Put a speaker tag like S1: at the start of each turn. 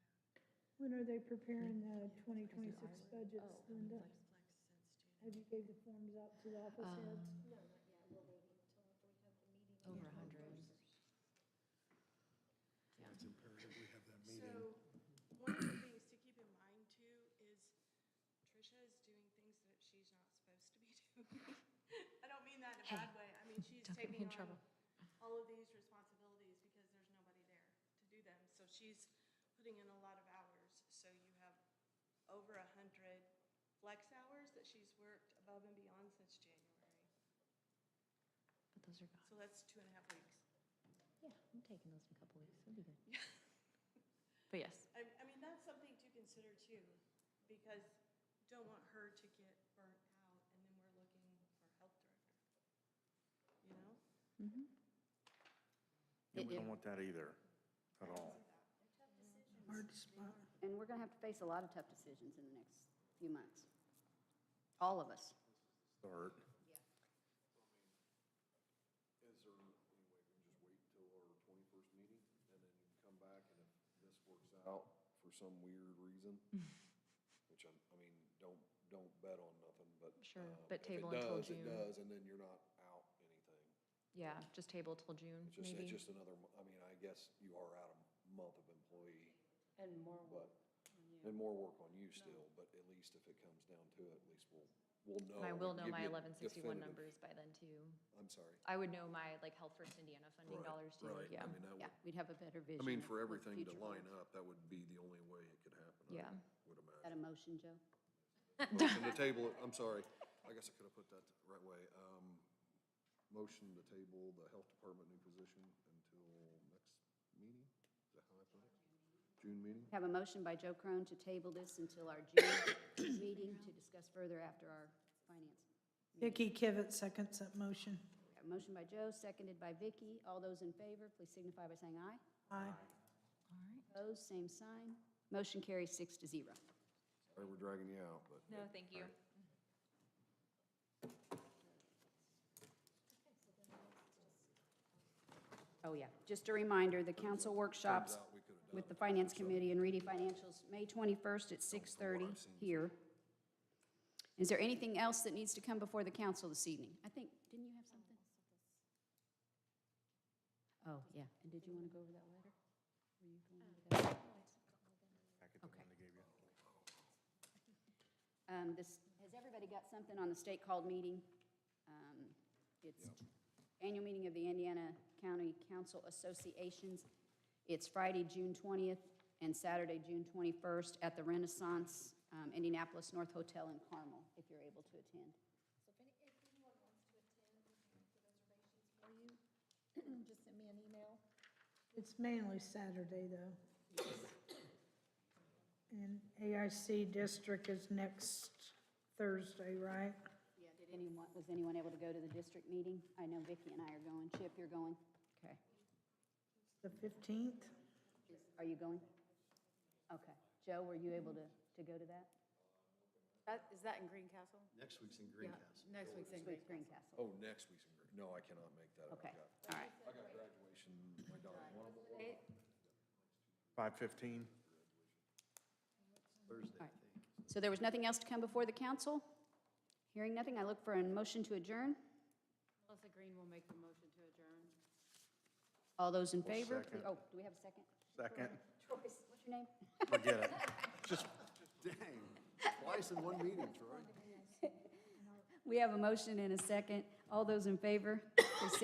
S1: When are they preparing the 2026 budgets,
S2: Oh,
S1: Linda? Have you gave the forms out to the office
S3: Um,
S1: heads?
S3: Over a hundred. Yeah,
S4: It's imperative we have that meeting.
S2: So, one of the things to keep in mind too is Trisha is doing things that she's not supposed to be doing. I don't mean that in a
S3: Hey,
S2: bad way. I mean, she's
S3: don't get me
S2: taking
S3: in trouble.
S2: on all of these responsibilities because there's nobody there to do them. So she's putting in a lot of hours. So you have over a hundred flex hours that she's worked above and beyond since January.
S3: but those are gone.
S2: So that's two and a half weeks.
S3: Yeah, I'm taking those in a couple weeks. It'll be good. But yes,
S2: I, I mean, that's something to consider too, because don't want her to get burnt out and then we're looking for health director. You know?
S5: And we
S3: It-
S5: don't
S3: it-
S5: want that either, at all.
S4: Hard spot.
S6: And we're going to have to face a lot of tough decisions in the next few months. All of us.
S5: Start.
S7: Is there any way we can just wait till our twenty-first meeting and then you can come back and if this works out for some weird reason? Which I'm, I mean, don't, don't bet on nothing, but.
S3: Sure,
S7: um,
S3: but
S7: if it
S3: table until
S7: does,
S3: June.
S7: It does, and then you're not out anything.
S3: yeah, just table till June,
S7: It's just,
S3: maybe.
S7: it's just another, mo- I mean, I guess you are out a month of employee,
S8: And more work.
S7: but, and more work on you still, but at least if it comes down to it, at least we'll, we'll
S3: And
S7: know.
S3: I will
S7: and
S3: know
S7: oh, give
S3: my
S7: you
S3: eleven sixty-one numbers
S7: definitive-
S3: by then too.
S7: I'm sorry.
S3: I would know my like Health First Indiana funding
S7: Right,
S3: dollars too,
S7: right. I
S3: yeah.
S7: mean, that
S6: Yeah,
S7: would-
S6: we'd have a better vision.
S7: I mean,
S6: of
S7: for
S6: what
S7: everything to
S6: future
S7: line
S6: holds.
S7: up, that would be the only way it could happen. I
S3: Yeah.
S7: Would
S6: Got a
S7: imagine.
S6: motion, Joe?
S7: Motion to table, it. I'm sorry. I guess I could have put that the right way. Um, motion to table the health department new position until next meeting? Is that how I put it? June meeting?
S6: Have a motion by Joe Crone to table this until our June meeting to discuss further after our finance.
S8: Vicky Kivett seconds that motion.
S6: We have a motion by Joe, seconded by Vicky. All those in favor, please signify by saying aye.
S8: Aye.
S3: All right.
S6: Opposed, same sign. Motion carries six to zero.
S7: Sorry, we're dragging you out, but.
S3: No, thank you.
S6: Oh, yeah. Just a reminder, the council workshops
S7: out we could have done
S6: with the Finance Committee and Reedy Financials, May 21st at
S7: I've
S6: 6:30
S7: seen.
S6: here. Is there anything else that needs to come before the council this evening? I think, didn't you have something? Oh, yeah. And did you want to go over that letter? Were you going over
S5: Back
S6: that?
S5: at the one they gave you.
S6: Um, this, has everybody got something on the state called meeting? Um, It's annual meeting of the Indiana County Council Associations. It's Friday, June twentieth, and Saturday, June twenty-first, at the Renaissance um, Indianapolis North Hotel in Carmel, if you're able to attend.
S9: So if any, if anyone wants to attend, we can make the reservations for you. Just send me an email.
S1: It's mainly Saturday, though. And AIC district is next Thursday, right?
S6: Yeah, did anyone, was anyone able to go to the district meeting? I know Vicki and I are going. Chip, you're going? Okay.
S1: The 15th?
S6: Is- Are you going? Okay. Joe, were you able to, to go to that?
S8: That, Uh, is that in Greencastle?
S7: Next week's in Greencastle.
S8: Next week's in
S6: With
S8: Greencastle.
S6: Greencastle?
S7: Oh, next week's in Green, no, I cannot make that. I've
S6: Okay, all
S7: got-
S6: right.
S7: I got graduation, my daughter, one of them,
S5: 5:15.
S7: Thursday,
S6: All
S7: I
S6: right.
S7: think.
S6: So there was nothing else to come before the council? Hearing nothing, I look for a motion to adjourn.
S8: Melissa Green will make the motion to adjourn.
S6: All those in favor?
S5: second.
S6: please- Oh, do we have a second?
S5: Second.
S6: Joyce, what's your name?
S5: Forget it.
S7: Dang, twice in one meeting, Troy.
S6: We have a motion and a second. All those in favor?